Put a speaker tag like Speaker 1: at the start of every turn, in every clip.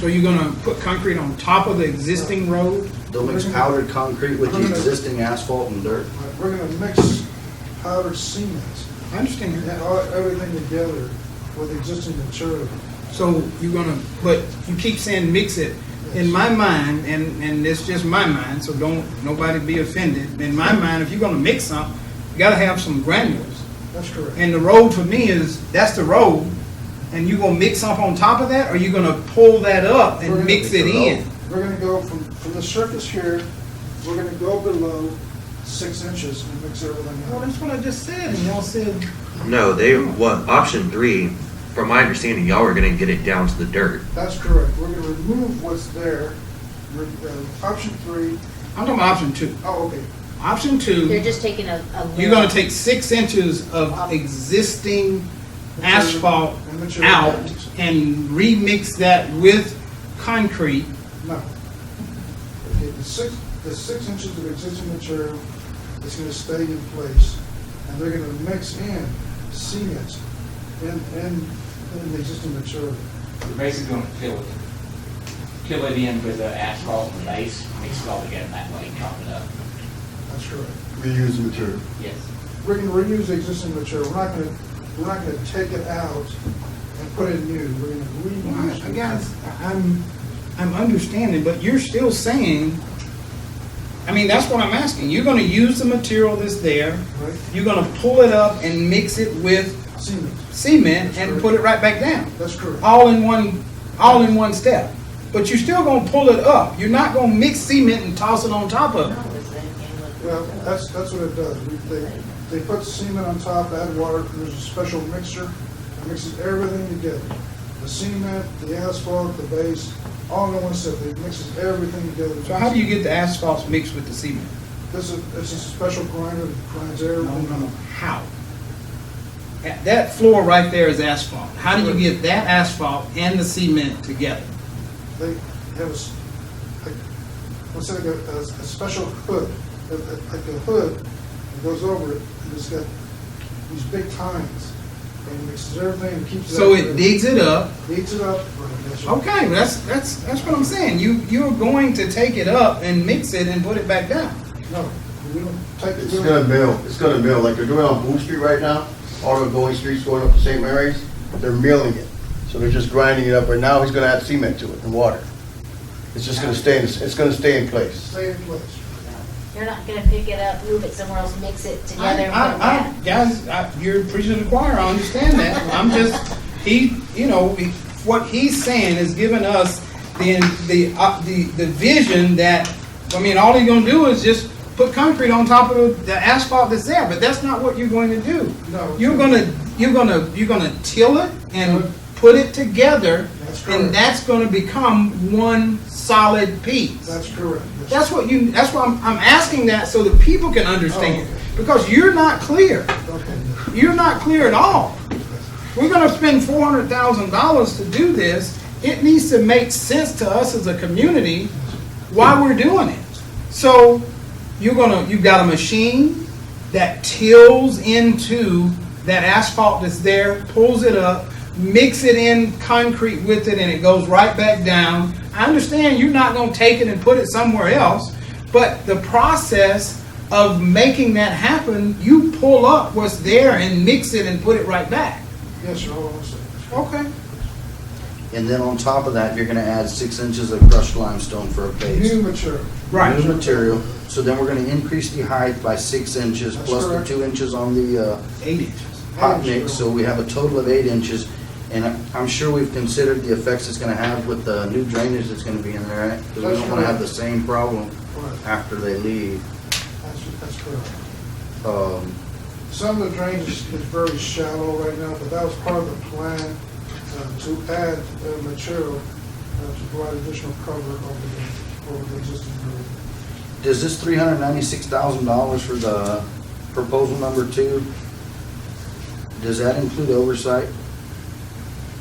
Speaker 1: So you're gonna put concrete on top of the existing road?
Speaker 2: They'll mix powdered concrete with the existing asphalt and dirt.
Speaker 3: Right, We're gonna mix powdered cement
Speaker 1: I understand
Speaker 3: and
Speaker 1: that.
Speaker 3: all, everything together with existing material.
Speaker 1: So you're gonna, but you keep saying mix it. In my mind, and, and it's just my mind, so don't, nobody be offended. In my mind, if you're gonna mix something, you gotta have some granules.
Speaker 3: That's correct.
Speaker 1: And the road for me is, that's the road, and you gonna mix up on top of that, or you gonna pull that up
Speaker 3: We're
Speaker 1: and
Speaker 3: gonna
Speaker 1: mix it
Speaker 2: mix it
Speaker 1: in?
Speaker 2: up.
Speaker 3: We're gonna go from, from the surface here, we're gonna go below six inches and mix everything
Speaker 1: Well,
Speaker 3: up.
Speaker 1: that's what I just said, and y'all said,
Speaker 4: No, they, what, option three, from my understanding, y'all are gonna get it down to the dirt.
Speaker 3: That's correct. We're gonna remove what's there. Re- uh, Option three,
Speaker 1: I'm talking about option two.
Speaker 3: oh, okay,
Speaker 1: Option
Speaker 5: They're
Speaker 1: two,
Speaker 5: just taking a, a.
Speaker 1: you're
Speaker 5: little-
Speaker 1: gonna take six inches of existing asphalt out and remix that with concrete.
Speaker 3: no. Okay, the six, the six inches of existing material is gonna stay in place, and they're gonna mix in cement and, and, and the existing material.
Speaker 6: We're basically gonna fill it, fill it in with the asphalt and the base, mix it all together that way, chop it up.
Speaker 3: That's correct.
Speaker 7: reuse the material.
Speaker 6: Yes.
Speaker 3: We're gonna reuse the existing material. We're not gonna, we're not gonna take it out and put it new. We're gonna reuse. it.
Speaker 1: I guess, I'm, I'm understanding, but you're still saying, I mean, that's what I'm asking. You're gonna use the material that's there,
Speaker 3: Right?
Speaker 1: you're gonna pull it up and mix it with
Speaker 3: Cement.
Speaker 1: cement and put it right back down.
Speaker 3: That's correct.
Speaker 1: all in one, all in one step. But you're still gonna pull it up. You're not gonna mix cement and toss it on top of it.
Speaker 3: Well, that's, that's what it does. We- They, they put cement on top, add water, and there's a special mixer that mixes everything together. The cement, the asphalt, the base, all in one set. It mixes everything together.
Speaker 1: So how do you get the asphalt mixed with the cement?
Speaker 3: This is, this is a special grinder that grinds
Speaker 1: I don't
Speaker 3: everything.
Speaker 1: know how. That- That floor right there is asphalt. How do you get that asphalt and the cement together?
Speaker 3: They have a, s- like, what's it, like a, a a special hood, a- a- like a hood that goes over it, and it's got these big tines, and mixes everything and keeps it.
Speaker 1: So
Speaker 3: up.
Speaker 1: it digs it up.
Speaker 3: Beats it up. Right, that's right.
Speaker 1: Okay, that's, that's, that's what I'm saying. You, you're going to take it up and mix it and put it back down.
Speaker 3: No, we don't take it.
Speaker 7: It's gonna mill, it's gonna mill, like they're doing on Boone Street right now, all the going streets going up to St. Mary's, they're milling it. So they're just grinding it up, and now he's gonna add cement to it and water. It's just gonna stay, in it's gonna stay in place.
Speaker 3: Stay in place.
Speaker 5: You're not gonna pick it up, move it somewhere else, mix it together and put it
Speaker 1: I-
Speaker 5: back.
Speaker 1: I- I- Guys, I- you're preaching to the choir, I understand that. I'm just, he, you know, he- what he's saying is giving us the, the, uh, the, the vision that, I mean, all you're gonna do is just put concrete on top of the- the asphalt that's there, but that's not what you're going to do.
Speaker 3: No.
Speaker 1: You're gonna, you're gonna, you're gonna till it and put it together,
Speaker 3: That's correct.
Speaker 1: and that's gonna become one solid piece.
Speaker 3: That's correct.
Speaker 1: That's what you, that's why I'm, I'm asking that so that people can understand. Because you're not clear.
Speaker 3: Okay.
Speaker 1: You're not clear at all. We're gonna spend four hundred thousand dollars to do this. It needs to make sense to us as a community why we're doing it. So you're gonna, you've got a machine that tills into that asphalt that's there, pulls it up, mix it in concrete with it, and it goes right back down. I understand you're not gonna take it and put it somewhere else, but the process of making that happen, you pull up what's there and mix it and put it right back.
Speaker 3: Yes, sir, hold on a second.
Speaker 1: Okay.
Speaker 2: And then on top of that, you're gonna add six inches of crushed limestone for a base.
Speaker 3: New material.
Speaker 1: Right.
Speaker 2: New material, so then we're gonna increase the height by six inches,
Speaker 3: That's
Speaker 2: plus the
Speaker 3: correct.
Speaker 2: two inches on the, uh,
Speaker 1: Eight inches.
Speaker 2: hot mix, so we have a total of eight inches. And I- I'm sure we've considered the effects it's gonna have with the new drainage that's gonna be in there, right? Because we don't wanna have the same problem
Speaker 3: Right,
Speaker 2: after they leave.
Speaker 3: that's, that's correct.
Speaker 2: Um,
Speaker 3: Some of the drainage is is very shallow right now, but that was part of the plan uh, to add uh, material uh, to provide additional cover over the, over the existing road.
Speaker 2: Does this three hundred ninety-six thousand dollars for the proposal number two, does that include oversight?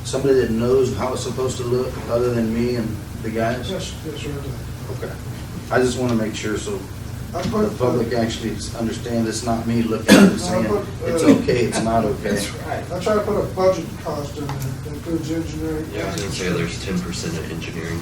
Speaker 2: Somebody that knows how it's supposed to look, other than me and the guys?
Speaker 3: Yes, yes, sir.
Speaker 2: Okay. I just wanna make sure, so
Speaker 3: I put,
Speaker 2: The public actually understand it's not me looking at it saying, it's okay, it's not okay.
Speaker 1: right.
Speaker 3: I try to put a budget cost in there, that includes engineering.
Speaker 4: Yeah, I was gonna say there's ten percent of engineering.